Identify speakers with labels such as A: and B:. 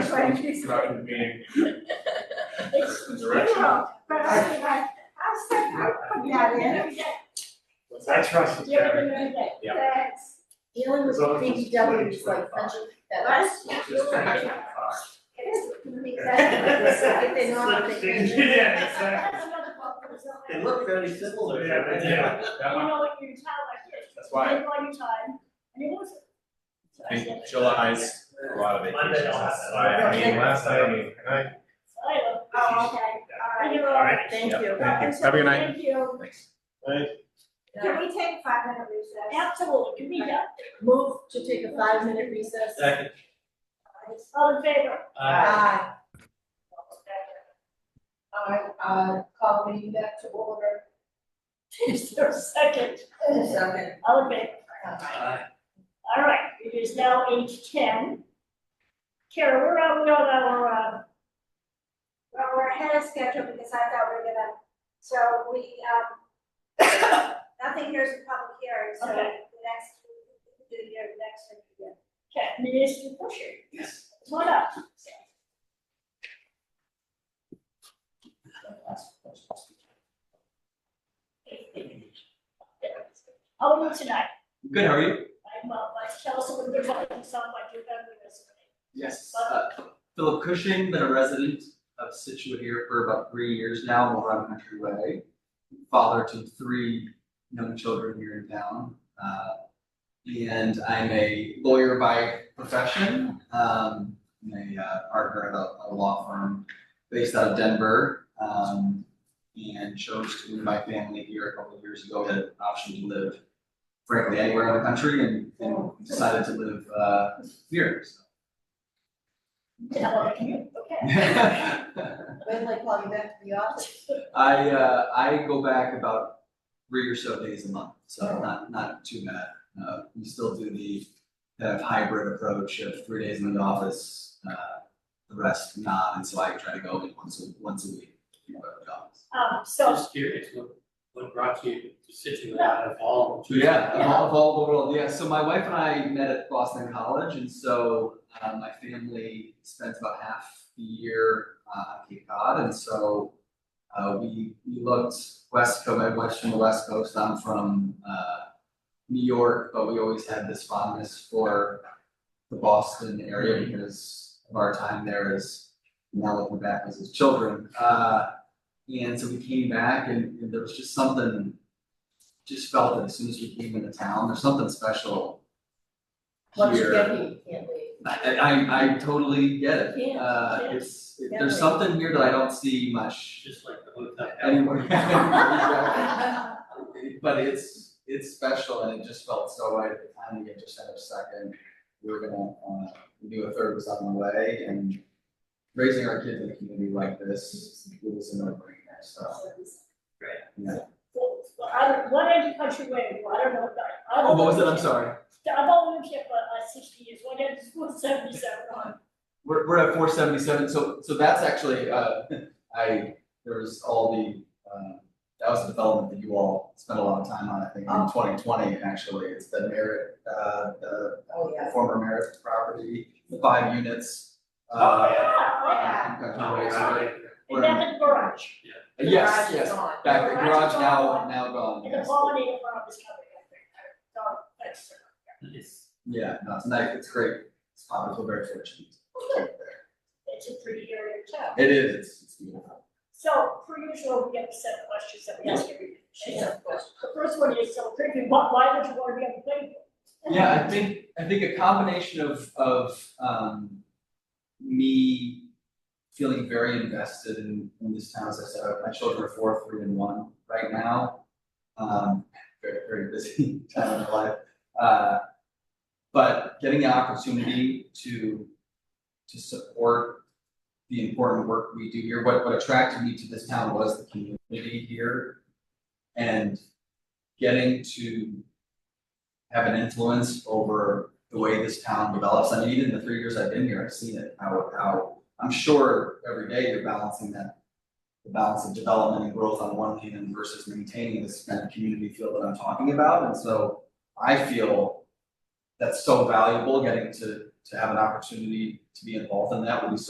A: That's why I'm just-
B: Productive meeting.
A: It's
B: The direction.
A: zero, but I mean, I, I said, I would put that in,
B: I trust the
A: give it
B: chairman.
A: another day,
C: Yeah.
A: thanks.
D: Dealing with
B: As long as it's
D: DPW is
B: 20,
D: like punching
A: Right?
D: feathers.
B: Just kind of-
A: It is,
D: Exactly. If they're not, they can't.
B: Yeah, exactly.
A: That's another book that was on
C: They
A: there.
C: look very similar.
B: Yeah, they do.
A: You
B: That one,
A: know what you tell like this.
B: that's why
A: Take all your time, and it was. So I said,
E: think July's a lot of vacations,
C: Monday I'll have
E: that's
C: that.
E: why, I mean, last night, I
A: I don't- Oh, okay, all right.
B: All right.
D: Thank you.
E: Thank you.
A: So
E: Have a good night.
A: Thank you. Can we take five minute recess? Absolutely, can we, yeah.
D: Move to take a five minute recess.
F: Uh,
C: Second.
A: All in favor?
C: Uh,
D: I, uh, call meeting back to order.
A: Is there a second?
D: Second.
A: All in favor?
C: uh,
A: All right, it is now eight ten. Kara, where are we on our, uh?
G: Well, we're ahead of schedule because I thought we were gonna, so we, um, nothing here is a public hearing, so
A: Okay.
G: the next, we can do your next one. yeah.
A: Okay, Minister Busher. Yes. What up? How are you tonight?
F: Good, how are you?
A: I'm, uh, like, tell us a little bit about yourself, like your family history.
F: Yes. uh, Philip Cushing, been a resident of Situate here for about three years now, over on Country Way. Father to three young children here in town. Uh, And I'm a lawyer by profession, um, I'm a uh, partner at a, a law firm based out of Denver. um, And chose to move my family here a couple of years ago, had an option to live frankly anywhere in the country and and decided to live, uh, here, so.
A: Tell us, you, okay.
F: I
D: When they call you back to the office.
F: uh, I go back about three or so days a month, so not not too bad. Uh, we still do the kind of hybrid approach of three days in the office, uh, the rest not, and so I try to go in once a once a week. you know, at the office.
A: Um, so,
H: Just curious, what, what brought you to Situate out of all? of
F: Yeah, of all, of all the world, yeah. So my wife and I met at Boston College, and so uh, my family spends about half the year uh, on Cape Cod, and so uh, we we looked west coast. My wife's from the west coast. I'm from uh, New York, but we always had this fondness for the Boston area because of our time there as now looking back as his children. Uh, and so we came back, and, and there was just something just felt that as soon as we came into town, there's something special
D: Once you
F: here.
D: get here, you can't leave.
F: I, I, I totally get it.
D: Yeah,
F: Uh,
D: yeah.
F: it's, it-
D: Yeah.
F: there's something here that I don't see much
H: Just like the hotel.
F: anywhere.
D: Oh,
F: But it's, it's special and it just felt so right at the time, we had just had our second, we were gonna, uh, we knew a third was on the way and raising our kids in a community like this, it was a no-brainer, so, yeah.
A: well, I don't, what end of country way, I don't know about. I
F: Oh,
A: don't
F: what was
A: know.
F: it? I'm sorry.
A: I've only lived here for uh, sixty years, what end is one seventy-seven on?
F: We're, we're at four seventy-seven, so, so that's actually, uh, I, there was all the, uh, that was a development that you all spent a lot of time on, I think,
D: Oh.
F: in twenty twenty, actually, it's the merit, uh, the
D: Oh, yeah.
F: former merit property, the five units.
A: Oh,
F: uh,
A: yeah,
F: uh, Kentucky
H: Oh,
F: Way, so
H: yeah.
A: yeah, and that's the garage,
F: they- Yes,
D: Garage is
F: yes,
D: on.
F: back, the
A: Garage is
F: garage now,
A: gone.
F: now gone,
A: and the
F: yes.
A: pollinator farm is coming, I think, I don't, that's.
H: It's-
F: Yeah, no, it's nice, it's great, it's, I feel very fortunate. to live there.
A: It's a pretty area of town.
F: It is, it's, it's beautiful.
A: So, per usual, we have a set of questions that we ask every, so, the first one is, so, Griffin, why, why would you want to be on the planning board?
F: Yeah, I think, I think a combination of, of, um, me feeling very invested in, in this town, as I said, my children are four, three, and one right now. Um, very, very busy time in my life, uh, but getting the opportunity to, to support the important work we do here, what, what attracted me to this town was the community here. And getting to have an influence over the way this town develops. I mean, even in the three years I've been here, I've seen it, how, how, I'm sure every day you're balancing that, the balance of development and growth on one hand versus maintaining this kind of community feel that I'm talking about. And so I feel that's so valuable, getting to, to have an opportunity to be involved in that would be so